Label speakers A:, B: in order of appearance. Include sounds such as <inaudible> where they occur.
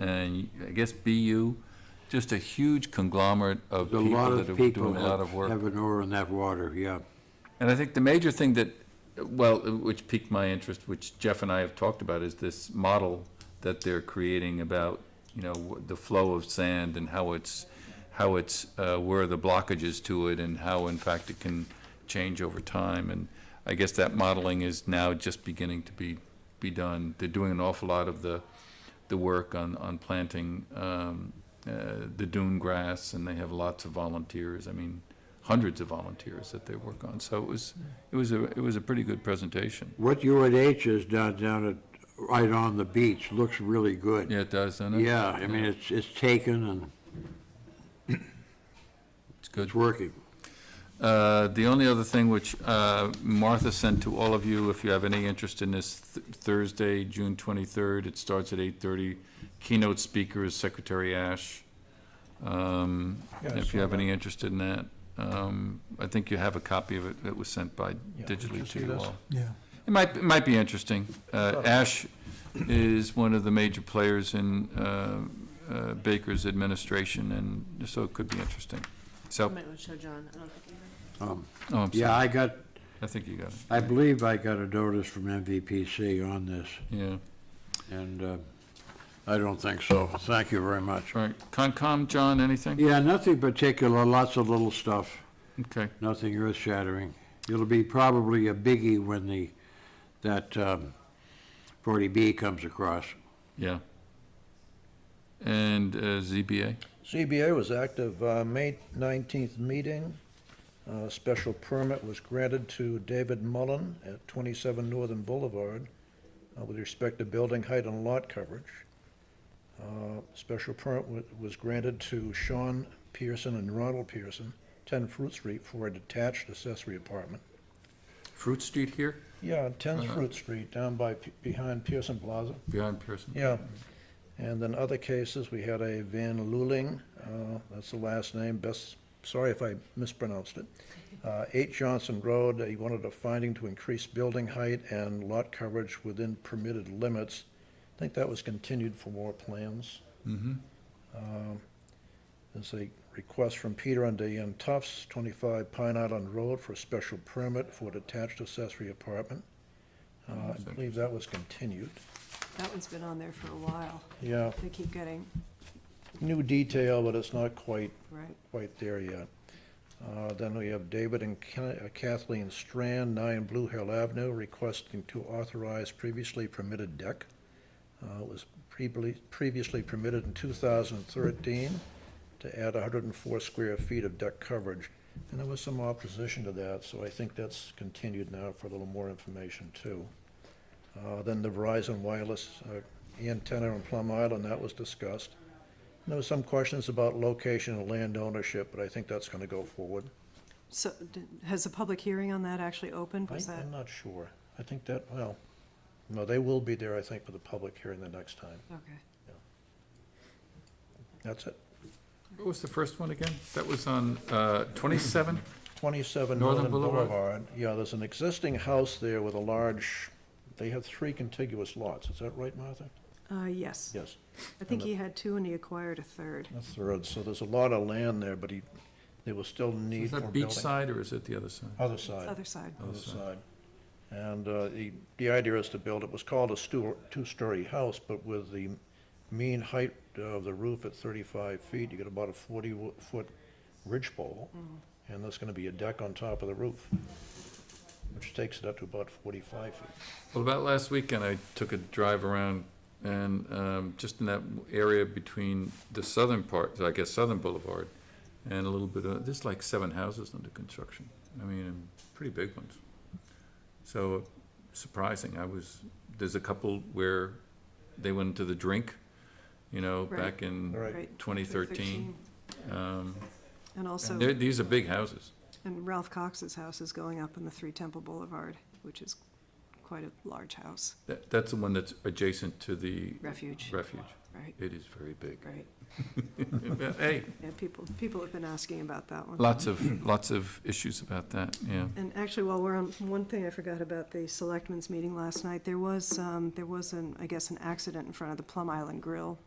A: and I guess BU, just a huge conglomerate of
B: A
A: people
B: lot
A: that
B: of
A: are
B: people
A: doing a lot
B: have
A: of work.
B: have an oar in that water, yeah.
A: And I think the major thing that, well, which piqued my interest, which Jeff and I have talked about, is this model that they're creating about, you know, the flow of sand and how it's, how it's, uh, where are the blockages to it and how in fact it can change over time. And I guess that modeling is now just beginning to be, be done. They're doing an awful lot of the, the work on, on planting, um, uh, the dune grass and they have lots of volunteers. I mean, hundreds of volunteers that they work on. So it was, it was a, it was a pretty good presentation.
B: What UNH has done down at, right on the beach, looks really good.
A: Yeah, it does, doesn't it?
B: Yeah, I mean, it's, it's taken and
A: It's good.
B: it's working.
A: Uh, The only other thing which uh, Martha sent to all of you, if you have any interest in this th- Thursday, June 23rd, it starts at 8:30. Keynote speaker is Secretary Ash. Um,
C: Yeah, I
A: If you
C: saw
A: have any
C: that.
A: interest in that, um, I think you have a copy of it that was sent by
C: Yeah, did you
A: digitally to
C: see
A: you
C: this?
A: all.
C: Yeah.
A: It might, it might be interesting. Uh, Ash is one of the major players in uh, uh, Baker's administration, and so it could be interesting. So,
D: I might want to show John. I don't think he
B: Um,
A: oh, I'm
B: Yeah,
A: sorry,
B: I got,
A: I think you got it,
B: I believe I got a notice from MVPC on this,
A: yeah.
B: and uh, I don't think so. Thank you very much.
A: All right, Concom, John, anything?
B: Yeah, nothing particular, lots of little stuff,
A: Okay,
B: nothing earth-shattering. It'll be probably a biggie when the, that um, 40B comes across.
A: yeah. And uh, ZBA?
C: CBA was active, uh, May 19th meeting. Uh, Special permit was granted to David Mullen at 27 Northern Boulevard uh, with respect to building height and lot coverage. Uh, Special permit wa- was granted to Sean Pearson and Ronald Pearson, 10 Fruit Street, for a detached accessory apartment.
A: Fruit Street here?
C: Yeah, 10
A: Uh-huh.
C: Fruit Street, down by, P- behind Pearson Plaza.
A: Behind Pearson?
C: Yeah, and then other cases, we had a Van Luling, uh, that's the last name, best, sorry if I mispronounced it. Uh, Eight Johnson Road, he wanted a finding to increase building height and lot coverage within permitted limits. I think that was continued for more plans. Um,
A: Mm-hmm,
C: There's a request from Peter and Diane Tufts, 25 Pine Island Road, for a special permit for detached accessory apartment. Uh, I believe that was continued.
D: That one's been on there for a while.
C: Yeah,
D: They keep getting,
C: new detail, but it's not quite
D: right,
C: quite there yet. Uh, Then we have David and Ken- uh, Kathleen Strand, 9 Blue Hill Avenue, requesting to authorize previously permitted deck. Uh, It was previously- previously permitted in 2013 to add 104 square feet of deck coverage. And there was some opposition to that, so I think that's continued now for a little more information, too. Uh, Then the Verizon Wireless uh, antenna on Plum Island, that was discussed. There was some questions about location and land ownership, but I think that's gonna go forward.
D: so, d- has the public hearing on that actually opened?
C: I-
D: Was that,
C: I'm not sure. I think that, well, no, they will be there, I think, for the public hearing the next time.
D: okay.
C: That's it.
A: What was the first one again? That was on uh, 27?
C: Twenty-seven
A: Northern
C: Northern
A: Boulevard.
C: Boulevard. Yeah, there's an existing house there with a large, they have three contiguous lots. Is that right, Martha?
D: Uh, yes.
C: Yes.
D: I think he had two and he acquired a third.
C: A third, so there's a lot of land there, but he, there was still need
A: Is
C: for
A: that
C: building.
A: beachside or is it the other side?
C: Other side.
D: Other side.
C: other side. And uh, the, the idea is to build, it was called a stu- two-story house, but with the mean height of the roof at 35 feet, you get about a 40-foot ridge pole, and there's going to be a deck on top of the roof, which takes it up to about 45 feet.
A: Well, about last weekend, I took a drive around and um, just in that area between the southern part, I guess Southern Boulevard, and a little bit of, there's like seven houses under construction. I mean, and pretty big ones. So surprising, I was, there's a couple where they went into the drink, you know,
D: Right.
A: back in
C: All right,
D: Right.
A: 2013. Um,
D: And
A: And
D: also,
A: they're- these are big houses.
D: and Ralph Cox's house is going up in the Three Temple Boulevard, which is quite a large house,
A: That- That's the one that's adjacent to the
D: refuge,
A: refuge.
D: right,
A: It is very
D: <laughs>
A: big.
D: right.
A: Hey,
D: Yeah, people, people have been asking about that one.
A: Lots of, lots of issues about that, yeah.
D: And actually, while we're on, one thing I forgot about the selectmen's meeting last night, there was, um, there was an, I guess, an accident in front of the Plum Island Grill